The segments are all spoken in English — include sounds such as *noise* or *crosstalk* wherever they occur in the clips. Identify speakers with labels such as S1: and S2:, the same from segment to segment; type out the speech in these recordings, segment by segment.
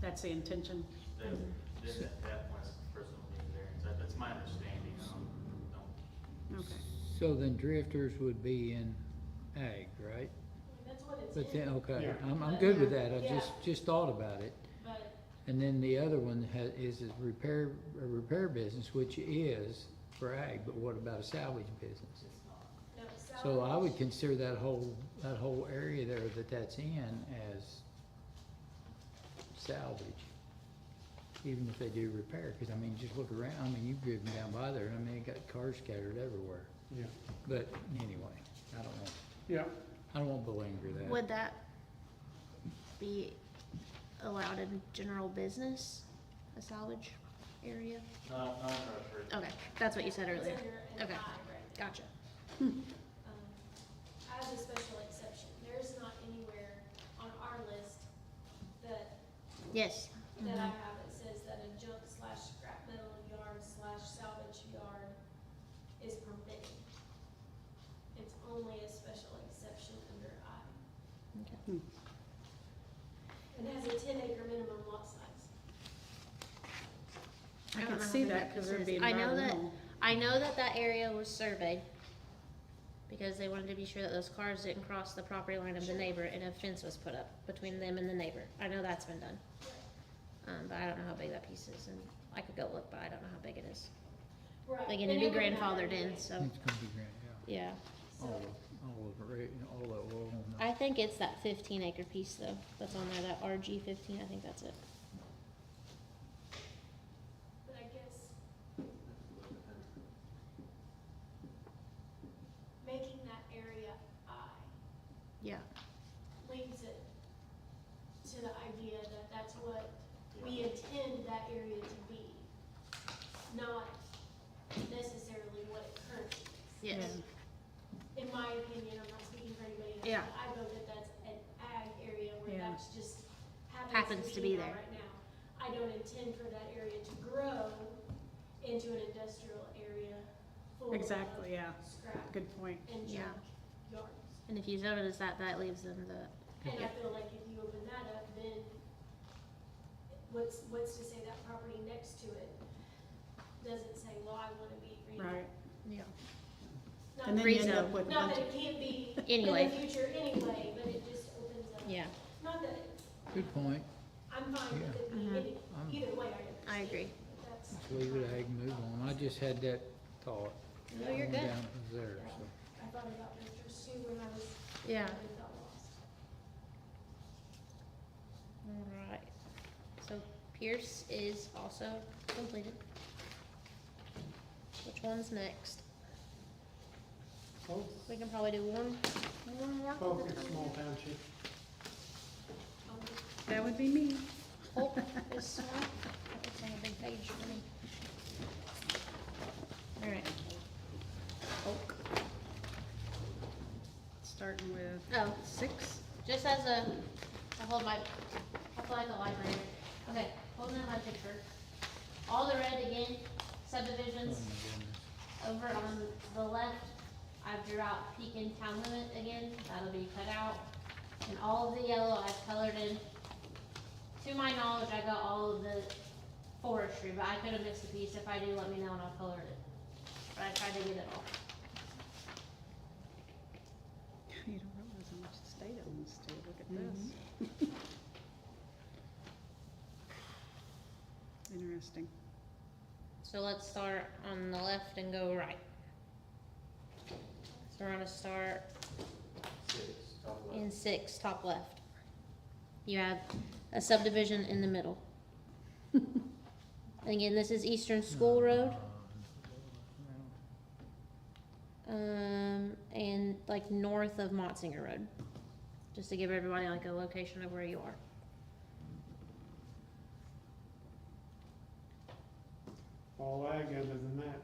S1: That's the intention.
S2: Then, then at that point, the person will need a variance. That- That's my understanding. I don't, don't
S1: Okay.
S3: So then drifters would be in ag, right?
S4: That's what it's in.
S3: But then, okay,
S5: Yeah.
S3: I'm, I'm good with that, I
S4: Yeah.
S3: just, just thought about it.
S4: But
S3: And then the other one has, is a repair, a repair business, which is for ag, but what about a salvage business?
S2: it's not.
S4: no,
S3: So I would
S4: salvage-
S3: consider that whole, that whole area there that that's in as salvage. Even if they do repair, cause I mean, just look around, I mean, you've driven down by there, and I mean, it got cars scattered everywhere.
S5: Yeah,
S3: But anyway, I don't want,
S5: yeah,
S3: I don't want to belabor that.
S6: Would that be allowed in general business, a salvage area?
S2: Not, not in our first-
S6: Okay, that's what you said earlier.
S4: It's under an
S6: Okay.
S4: I right now.
S6: Gotcha.
S4: Um, As a special exception, there's not anywhere on our list that,
S6: Yes.
S4: that I have that says that a junk slash scrap metal yard slash salvage yard is permitted. It's only a special exception under I.
S3: Hmm.
S4: And has a ten acre minimum lot size.
S1: I
S6: don't
S1: can
S6: know how
S1: see
S6: big
S1: that because
S6: piece
S1: there'd
S6: is.
S1: be
S6: I know that,
S1: environmental.
S6: I know that that area was surveyed because they wanted to be sure that those cars didn't cross the property line of the
S4: Sure.
S6: neighbor and a fence was put up between them and the neighbor. I know that's been done. Um, but I don't know how big that piece is and I could go look, but I don't know how big it is.
S4: Right.
S6: Like, and
S4: they
S6: it'd be
S4: never have
S6: grandfathered in,
S4: anyway.
S6: so,
S3: It's gonna be grand, yeah.
S6: yeah.
S4: So,
S3: All, of- all of, the ra- all of, all of them.
S6: I think it's that fifteen acre piece though, that's on there, that RG fifteen, I think that's it.
S4: but I guess
S2: uh,
S4: making that area I
S6: Yeah.
S4: leaves it to the idea that that's what we
S2: Yeah.
S4: intend that area to be, not necessarily what it currently is.
S6: Yes.
S4: In my opinion, I'm not speaking for anybody else.
S6: Yeah.
S4: but I know that that's an ag area where
S1: Yeah.
S4: that's just
S6: Happens
S4: happens
S6: to
S4: to be
S6: be
S4: now
S6: there.
S4: right now. I don't intend for that area to grow into an industrial area full of
S1: Exactly, yeah.
S4: scrap
S1: Good point.
S4: and
S6: Yeah.
S4: junk yards.
S6: And if you notice that, that leaves them the,
S4: And I feel like if you open that up, then what's, what's to say that property next to it doesn't say, well, I wanna be green.
S1: Right.
S6: yeah.
S4: Not
S1: And
S4: that-
S1: then you end up
S6: Rezone.
S1: with a
S4: Not
S1: bunch
S4: that
S1: of,
S4: it can't be in
S6: Anyway.
S4: the future anyway, but it just opens up.
S6: yeah,
S4: Not that, it-
S3: Good point,
S4: I'm fine with it being
S6: Yeah.
S4: any,
S3: I'm-
S4: either way, I understand.
S6: I agree.
S4: but That's.
S3: let's Uh-huh. leave it ag and move on, I just had that thought.
S6: No, Oh, you're
S3: going
S6: good.
S3: down from There, so.
S4: I thought about Mr. Sue when I was.
S6: Yeah.
S4: when I got lost.
S6: Alright, so Pierce is also completed. Which one's next?
S5: both,
S6: We can probably do one, one more.
S5: both in small township.
S4: Um,
S1: that would be me.
S6: Hope is small, that looks like a big page for me. Alright. Oak.
S1: Starting with
S6: Oh,
S1: six.
S6: Just as a, I hold my, I feel like a library. Okay, holding up my picture. All the red again,
S3: Oh my
S6: subdivisions
S3: goodness.
S6: over on the left. I drew out Pekin town limit again, that'll be cut out. And all of the yellow I've colored in. To my knowledge, I got all of the forestry, but I could have missed a piece. If I do, let me know and I'll color it. But I tried to get it all.
S1: You don't realize how much state owns to, look at this. *laughs*
S6: Mm-hmm.
S1: Interesting.
S6: So let's start on the left and go right. So we're gonna start
S2: Six, top left.
S6: in six, top left. You have a subdivision in the middle. And Again, this is Eastern School Road,
S3: Uh,
S6: um, and like north of Motzinger Road. Just to give everybody like a location of where you are.
S5: All ag other than that.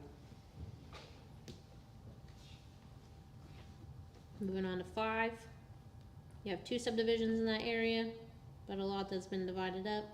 S6: Moving on to five. You have two subdivisions in that area, but a lot that's been divided up.